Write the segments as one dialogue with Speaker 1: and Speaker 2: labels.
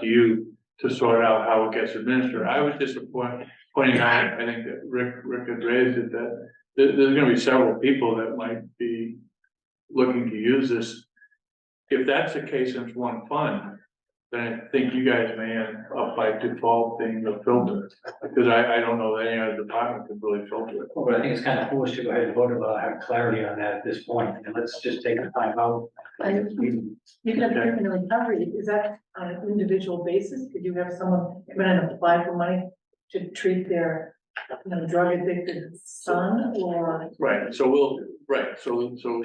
Speaker 1: to you to sort out how it gets administered. I was just point- pointing out, I think that Rick, Rick had raised it, that there, there's gonna be several people that might be looking to use this. If that's the case, and it's one fund, then I think you guys may end up by default being the filter. Because I, I don't know that any other department could really filter it.
Speaker 2: Well, but I think it's kind of foolish to go ahead and vote about, have clarity on that at this point, and let's just take the time out.
Speaker 3: And you can have criminal recovery, is that on an individual basis? Could you have someone come in and apply for money to treat their, you know, drug addicted son or?
Speaker 1: Right, so we'll, right, so, so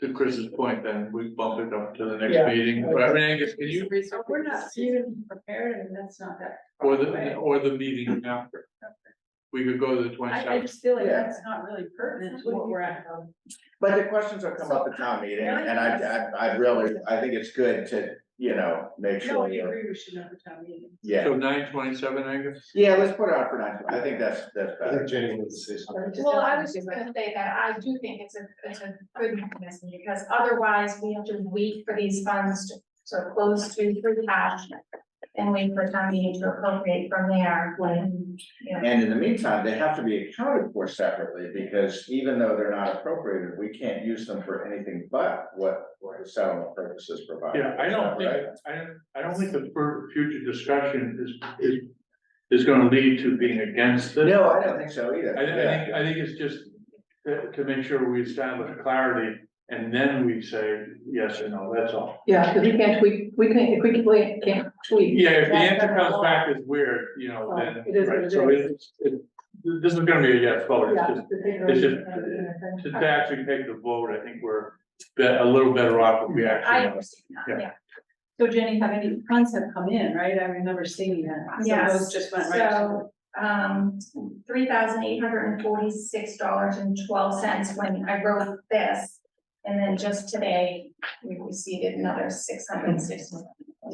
Speaker 1: to Chris's point, then we bump it up to the
Speaker 4: Yeah.
Speaker 1: next meeting. But I mean, Angus, can you,
Speaker 3: We're not even prepared and that's not that.
Speaker 1: or the, or the meeting after? We could go to the twenty seventh.
Speaker 3: just feel
Speaker 4: like that's
Speaker 3: not really pertinent
Speaker 4: to what we're at.
Speaker 5: But the questions will come up at town meeting, and I, I, I really, I think it's good to, you know, make sure you're,
Speaker 3: we should have a town meeting.
Speaker 5: yeah.
Speaker 1: So nine twenty seven, Angus?
Speaker 5: Yeah, let's put it out for nine, I think that's, that's
Speaker 6: I
Speaker 5: better.
Speaker 6: think Jenny wanted to say something.
Speaker 7: Well, I was just gonna say that I do think it's a, it's a good mechanism, because otherwise we have to wait for these funds to sort of close to free cash. And wait for town meeting to appropriate from there when, you know,
Speaker 5: And in the meantime, they have to be accounted for separately, because even though they're not appropriated, we can't use them for anything but what the settlement purposes provide.
Speaker 1: Yeah, I don't think,
Speaker 5: Right?
Speaker 1: I don't, I don't think the fur- future discussion is, is, is gonna lead to being against this.
Speaker 5: No, I don't think so
Speaker 1: I,
Speaker 5: either.
Speaker 1: I think, I think it's just to, to make sure we establish clarity and then we say yes or no, that's all.
Speaker 3: Yeah, because we can't tweak, we can't, if we can't- can't tweak.
Speaker 1: Yeah, if the
Speaker 3: That's
Speaker 1: answer
Speaker 3: kind of
Speaker 1: comes
Speaker 3: all.
Speaker 1: back is weird, you know,
Speaker 3: Oh,
Speaker 1: then,
Speaker 3: it is what
Speaker 1: right,
Speaker 3: it
Speaker 1: so
Speaker 3: is.
Speaker 1: it's, it, this is gonna be a yes vote, it's
Speaker 3: Yeah.
Speaker 1: just,
Speaker 3: the bigger-
Speaker 1: it's just- to actually take the vote, I think we're be- a little better off if we
Speaker 7: I
Speaker 1: actually.
Speaker 7: understand that, yeah.
Speaker 8: So Jenny, have any funds have come in, right? I remember seeing that. So
Speaker 7: Yes.
Speaker 8: those Just went right. to-
Speaker 7: So, um, three thousand eight hundred and forty-six dollars and twelve cents when I wrote this. And then just today, we received another six hundred and sixty.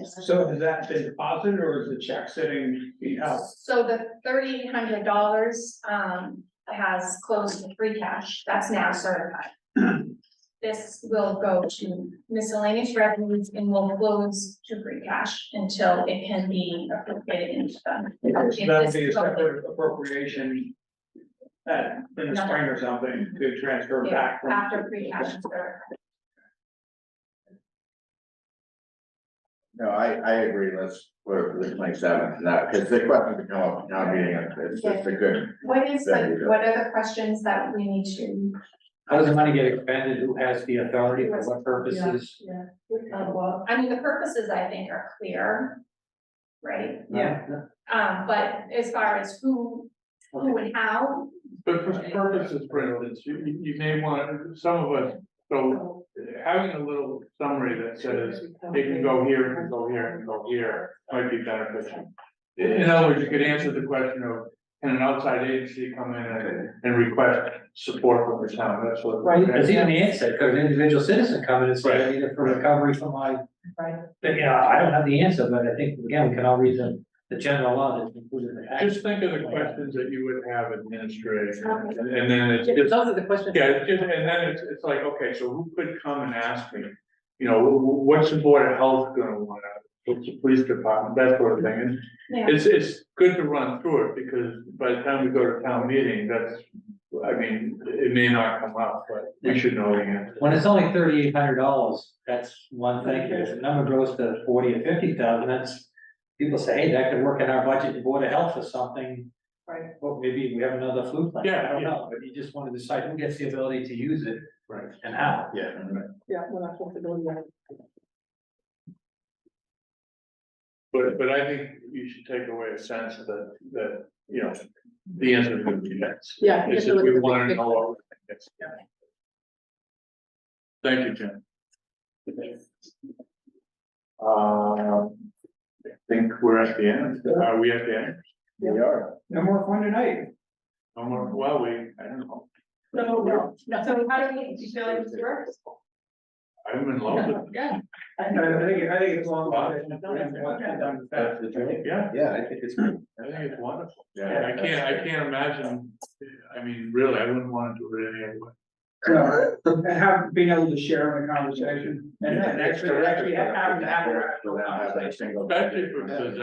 Speaker 4: So has that been deposited or is the check sitting being held?
Speaker 7: So the thirty-eight hundred dollars, um, has closed to free cash, that's now certified. This will go to miscellaneous revenues and will close to free cash until it can be appropriated into the.
Speaker 4: So That'll be a separate appropriation at, in the spring or something to transfer
Speaker 7: Yeah,
Speaker 4: back from.
Speaker 7: After free cash is certified.
Speaker 5: No, I, I agree, let's, we're, we're twenty-seven, now, because the question to come up at town meeting, and it's just a good.
Speaker 7: What is
Speaker 5: There you
Speaker 7: the,
Speaker 5: go.
Speaker 7: what are the questions that we need to,
Speaker 2: How does the money get expended? Who has the authority for what purposes?
Speaker 3: Yeah, we kind of, well,
Speaker 7: uh, I mean, the purposes I think are clear. Right,
Speaker 2: Yeah.
Speaker 7: um, but as far as who, who and how,
Speaker 1: But for purposes, for instance, you, you- you may want, some of us, so
Speaker 3: so-
Speaker 1: having a little summary that says, it can go here, it can go here, it can go here, might be beneficial. In in other words, you could answer the question of, can an outside agency come in and, and request support from the town, that's what.
Speaker 3: Right.
Speaker 2: Because even the answer, could an individual citizen come in and say, I need it for recovery from my,
Speaker 3: Right.
Speaker 2: but, you know, I don't have the answer, but I think, again, we can all read the, the general law that's included in the act.
Speaker 1: Just think of the questions that you would have administrative, and and then it's just,
Speaker 3: Those are the questions.
Speaker 1: yeah, it's just, and then it's, it's like, okay, so who could come and ask me? You know, wh- wh- what's the board of health gonna want, what's the police department, that sort of thing, and
Speaker 7: you know,
Speaker 1: It's, it's good to run through it, because by the time we go to town meeting, that's, I mean, it may not come up, but we should know the answer.
Speaker 2: When it's only thirty-eight hundred dollars, that's one thing, if the number grows to forty or fifty thousand, that's. People say, hey, that could work in our budget, the Board of Health or something.
Speaker 3: Right.
Speaker 2: Well, maybe we have another flu plan, I
Speaker 1: Yeah,
Speaker 2: don't
Speaker 1: yeah.
Speaker 2: know, but you just wanna decide who gets the ability to use it
Speaker 1: Right.
Speaker 2: and how.
Speaker 5: Yeah.
Speaker 3: Yeah, we're not supposed to go there.
Speaker 1: But, but I think you should take away a sense that, that, you know, the answer is gonna be yes.
Speaker 3: Yeah.
Speaker 1: It's just we want to know what we think it's. Thank you, Jim. Um, I think we're at the end, are we at the end?
Speaker 5: We are.
Speaker 4: No more fun tonight.
Speaker 1: No more, well, we, I don't know,
Speaker 3: No, no, no.
Speaker 8: So how do you, do you feel like it's worked?
Speaker 1: I'm in love with
Speaker 4: I think, I think it's long.
Speaker 1: That's the dream. Yeah,
Speaker 5: Yeah, I think it's. good.
Speaker 1: I think it's wonderful.
Speaker 5: Yeah.
Speaker 1: I can't, I can't imagine, I mean, really, I wouldn't want to do it any other way.
Speaker 2: So, um, and have, being able to share in the conversation and and actually, actually have, have an after.
Speaker 5: We'll now have that single.
Speaker 1: Especially for, because